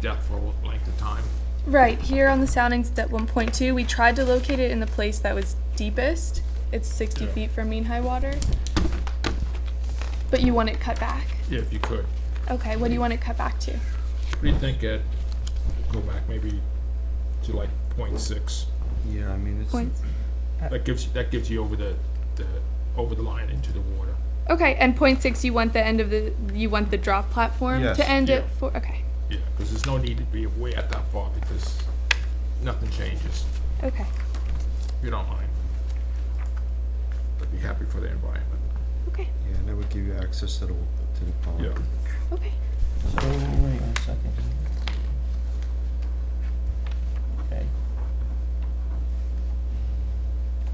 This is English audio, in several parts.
depth for what length of time. Right, here on the soundings it's at one point two, we tried to locate it in the place that was deepest. It's sixty Yeah. feet from mean high water. But you want it cut back? Yeah, if you could. Okay, what do you want it cut back to? What do you think at, go back maybe to like point six? Yeah, I mean, it's. Points. Uh, That gives, that gives you over the, the, over the line into the water. Okay, and point six, you want the end of the, you want the drop platform Yes, to end yeah. at four, okay, Yeah, because there's no need to be way out that far because nothing changes, okay. if you don't mind. But be happy for the environment. Okay, Yeah, that would give you access to the, to the pond. Yeah. okay. So, wait one second. Okay.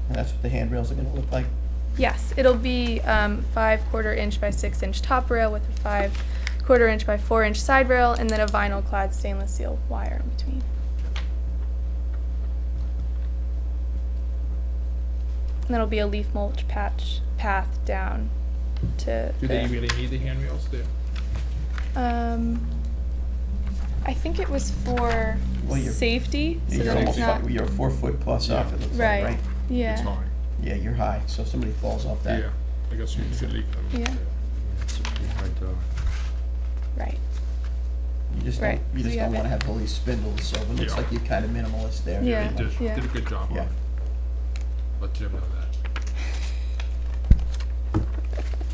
And that's what the handrails are gonna look like? Yes, it'll be um, five quarter inch by six inch top rail with a five quarter inch by four inch side rail and then a vinyl clad stainless steel wire in between. And that'll be a leaf mulch patch path down to Do they the, really need the handrails there? um, I think it was for Well, you're- safety, so You're that it's not, almost fi- You're four foot plus up, it looks like, Right. right? It's yeah, high, Yeah, you're high, so if somebody falls off that. yeah. I guess you should leave them. Yeah. It's a pretty high tower. right, You just Right, don't, so you just you don't have wanna it. have all these spindles, so it looks Yeah. like you're kinda minimalist there. Yeah. They did, Yeah. did a good job on Yeah. it. Let Jim know that.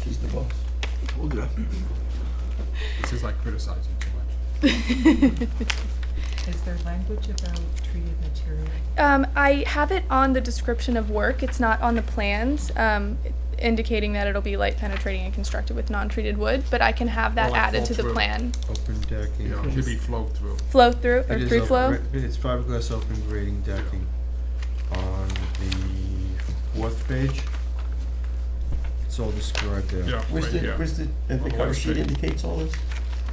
She's the boss. Told ya. This is like criticizing too much. Is there language about treated material? Um, I have it on the description of work. It's not on the plans, um, indicating that it'll be light penetrating and constructed with non-treated wood. But I can have that Or like added to the flow-through. plan. Open decking. You know, it should be flowed through. Flow through It or is through open flow. gra- It's fiberglass open grading decking on the fourth page. It's all described there. Yeah, Where's right, the, yeah. where's the, uh, the Well, cover let's sheet see. indicates all this?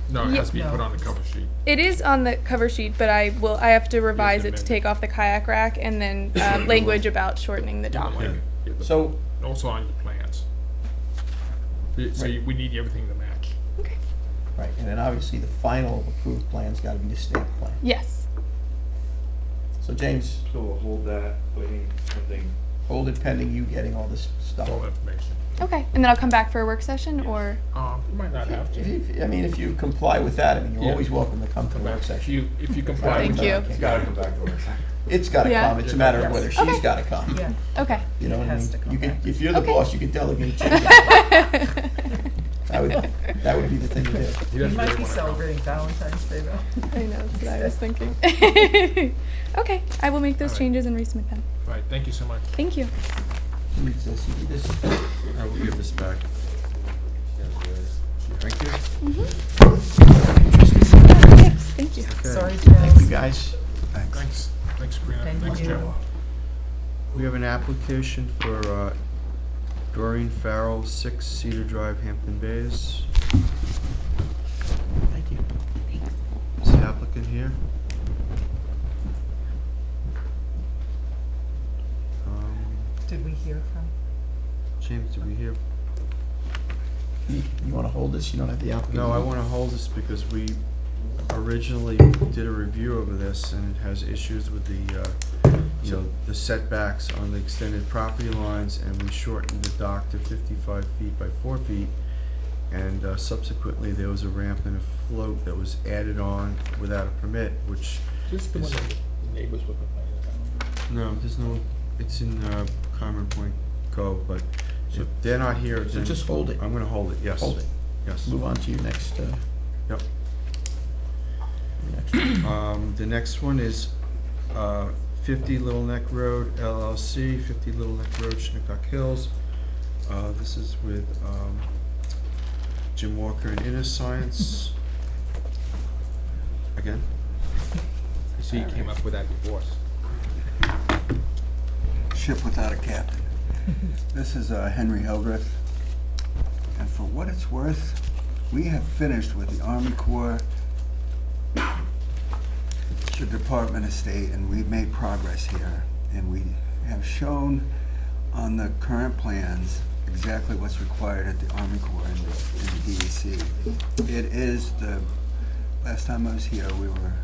No, it Yeah. has to be put No. on the cover sheet. It is on the cover sheet, but I will. I have to revise it to amend it. take off the kayak rack and then um, language about shortening the dock. Like, yeah, the- So, Also on your plans. Y- So Right. you- we need everything to match. Okay. right, and then obviously the final approved plan's gotta be the stamp plan. Yes. So James, So we'll hold that, waiting something. hold it pending you getting all this stuff. All information. Okay. And then I'll come back for a work session or. Um, you might not have to. If, if- I mean, if you comply with that, I mean, Yeah. you're always welcome to come to the work If session. You, if you comply with Thank you. that. It's gotta come back to us. It's gotta Yeah. come, it's a matter of whether she's Okay. gotta come, Yeah. Okay. you know what I Has mean? to come You could, back. if you're the Okay. boss, you could delegate to That would, that would be the thing to do. He You doesn't might really wanna be know. celebrating Valentine's Day though. I know. That's what I was thinking. okay. I will make those Alright. changes and resubmit them. Right, thank you so much. Thank you. Who needs this? You need this? I will give this back. Thank you. Thanks. Thank you. Okay. Sorry, Thank you, Charles. guys. Thanks. Thanks, thanks Sabrina, Thank thanks you. Jim. We have an application for uh, Doreen Farrell, 6 Cedar Drive, Hampton Bays. Thank you. Is the applicant here? Um, Did we hear from? James, did we hear? You, you wanna hold this? You don't have the applicant? No, I want to hold this because we originally did a review of this and it has issues with the, uh, you know, the setbacks on the extended property lines and we shortened the dock to fifty-five feet by four feet. And uh, subsequently, there was a ramp and a float that was added on without a permit, which, Just the one that the neighbors were complaining about. no, there's no, it's in uh, Common Point Cove, but if they're not here, So then just hold it. I'm going to hold it, yes. Hold it. Yes. Move on to your next, uh, Yep. your next. Um, the next one is, uh, fifty Little Neck Road LLC, fifty Little Neck Road, Shinnecock Hills. Uh, this is with, um, Jim Walker and Inner Science. Again, You see, he came up with that divorce. Ship without a captain. This is uh, Henry Hildreth. And for what it's worth, we have finished with the Army Corps, the Department of State, and we've made progress here. And we have shown on the current plans exactly E what's required at the Army Corps and the and the DEC. It is the last time I was here, we were